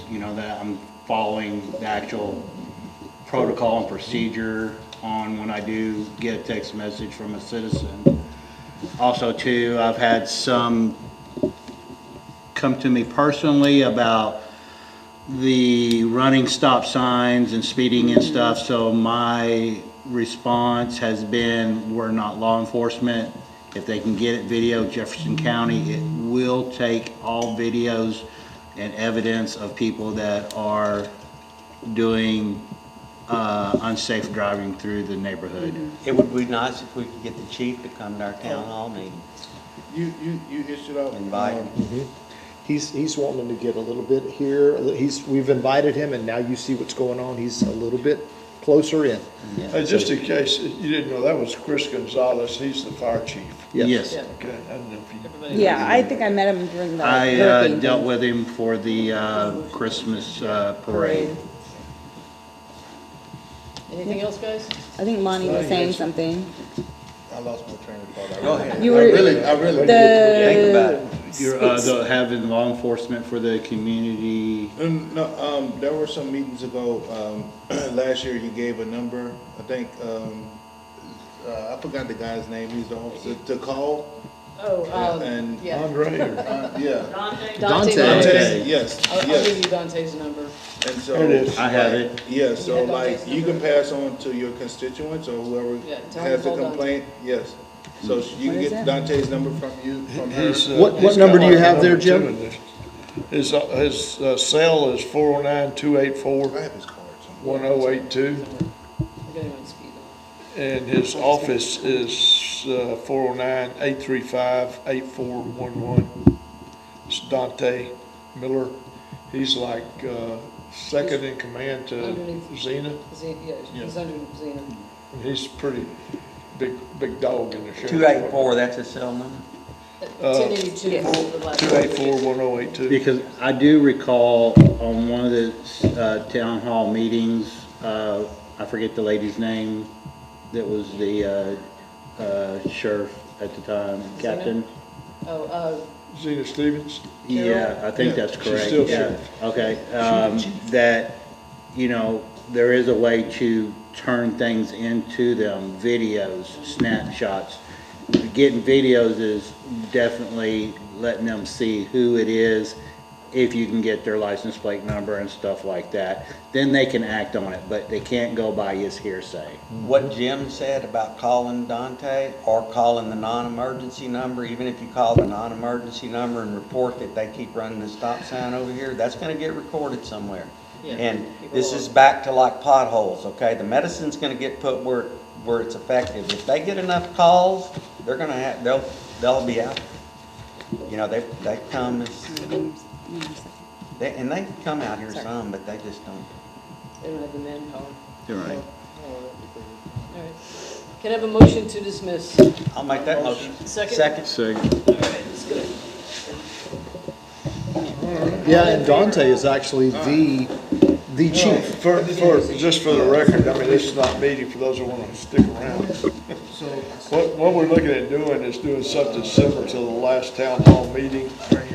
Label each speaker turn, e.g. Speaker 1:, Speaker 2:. Speaker 1: you know, that I'm following the actual protocol and procedure on when I do get a text message from a citizen. Also too, I've had some come to me personally about the running stop signs and speeding and stuff, so my response has been, we're not law enforcement. If they can get it video, Jefferson County, it will take all videos and evidence of people that are doing uh, unsafe driving through the neighborhood.
Speaker 2: It would be nice if we could get the chief to come to our town hall meeting.
Speaker 3: You, you, you issued out.
Speaker 2: Invite.
Speaker 3: um,
Speaker 4: He's, he's wanting to get a little bit here, a li- he's, we've invited him, and now you see what's going on, he's a little bit closer in.
Speaker 3: uh, Just in case you didn't know, that was Chris Gonzalez, he's the fire chief.
Speaker 1: Yes.
Speaker 3: Okay, I don't know if you-
Speaker 5: Yeah, I think I met him during the
Speaker 1: I uh,
Speaker 5: hurricane.
Speaker 1: dealt
Speaker 5: thing.
Speaker 1: with him for the uh, Christmas uh, parade.
Speaker 6: Anything else, guys?
Speaker 5: I think Monty was saying something.
Speaker 3: I lost my train of thought.
Speaker 2: Go ahead.
Speaker 5: You
Speaker 3: I really,
Speaker 5: were,
Speaker 3: I really.
Speaker 2: Think about
Speaker 5: the,
Speaker 2: it.
Speaker 1: You're, uh, the- having law enforcement for the community,
Speaker 3: Um, No, um, there were some meetings ago, um, last year you gave a number, I think, um, uh, I forgot the guy's name, he's the officer, to call,
Speaker 6: Oh, um,
Speaker 3: And-
Speaker 6: yeah.
Speaker 3: uh, yeah.
Speaker 6: Dante.
Speaker 1: Dante.
Speaker 3: Yes, yes.
Speaker 6: I'll, I'll give you Dante's number.
Speaker 3: And so.
Speaker 4: There it is.
Speaker 1: I have it.
Speaker 3: Yeah, so
Speaker 6: Yeah, don't
Speaker 3: like,
Speaker 6: waste
Speaker 3: you
Speaker 6: number.
Speaker 3: can pass on to your constituents or whoever
Speaker 6: Yeah, tell them
Speaker 3: has a
Speaker 6: hold on to
Speaker 3: complaint, yes. So you
Speaker 4: Hmm.
Speaker 5: What
Speaker 3: can
Speaker 5: is
Speaker 3: get
Speaker 5: that?
Speaker 3: Dante's number from you, from her.
Speaker 7: His, uh,
Speaker 4: What- what
Speaker 7: his
Speaker 4: number do you
Speaker 7: contact
Speaker 4: have there,
Speaker 7: number
Speaker 4: Jim?
Speaker 7: too in this. His, uh, his uh, cell is four oh nine, two eight
Speaker 3: I
Speaker 7: four,
Speaker 3: have his card somewhere.
Speaker 7: one oh eight two,
Speaker 6: I'll get him on speed dial.
Speaker 7: and his office is, uh, four oh nine, eight three five, eight four one one. It's Dante Miller. He's like, uh, second in command to
Speaker 6: Underneath.
Speaker 7: Zena.
Speaker 6: Ze- yeah, he's under Zena.
Speaker 7: He's pretty big, big dog in the sheriff's.
Speaker 2: Two eight four, that's a cell number?
Speaker 6: Ten eighty-two.
Speaker 7: Two eight four, one oh eight two.
Speaker 1: because I do recall on one of the uh, town hall meetings, uh, I forget the lady's name, that was the uh, uh, sheriff at the time, captain.
Speaker 6: Oh, uh,
Speaker 7: Zena Stevens.
Speaker 1: Yeah, I think
Speaker 3: Yeah,
Speaker 1: that's
Speaker 7: she's
Speaker 1: correct,
Speaker 7: still
Speaker 1: yeah, okay, um, that, you know, there is a way to turn things into them, videos, snapshots. Getting videos is definitely letting them see who it is, if you can get their license plate number and stuff like that, then they can act on it, but they can't go by his hearsay.
Speaker 2: What Jim said about calling Dante or calling the non-emergency number, even if you call the non-emergency number and report that they keep running the stop sign over here, that's gonna get recorded somewhere.
Speaker 6: Yeah.
Speaker 2: And this is back to like potholes, okay? The medicine's gonna get put where, where it's effective. If they get enough calls, they're gonna have, they'll, they'll be out. You know, they, they come, as- they, and they come out here some, but they just don't.
Speaker 6: they don't have the manpower.
Speaker 1: You're right.
Speaker 6: All right. Can I have a motion to dismiss? All
Speaker 2: I'll make that motion.
Speaker 6: Second.
Speaker 2: Second.
Speaker 6: right, that's good.
Speaker 4: Yeah, and Dante is actually the, the chief.
Speaker 7: For, for, just for the record, I mean, this is not meeting for those who want to stick around. What, what we're looking at doing is doing something similar to the last town hall meeting.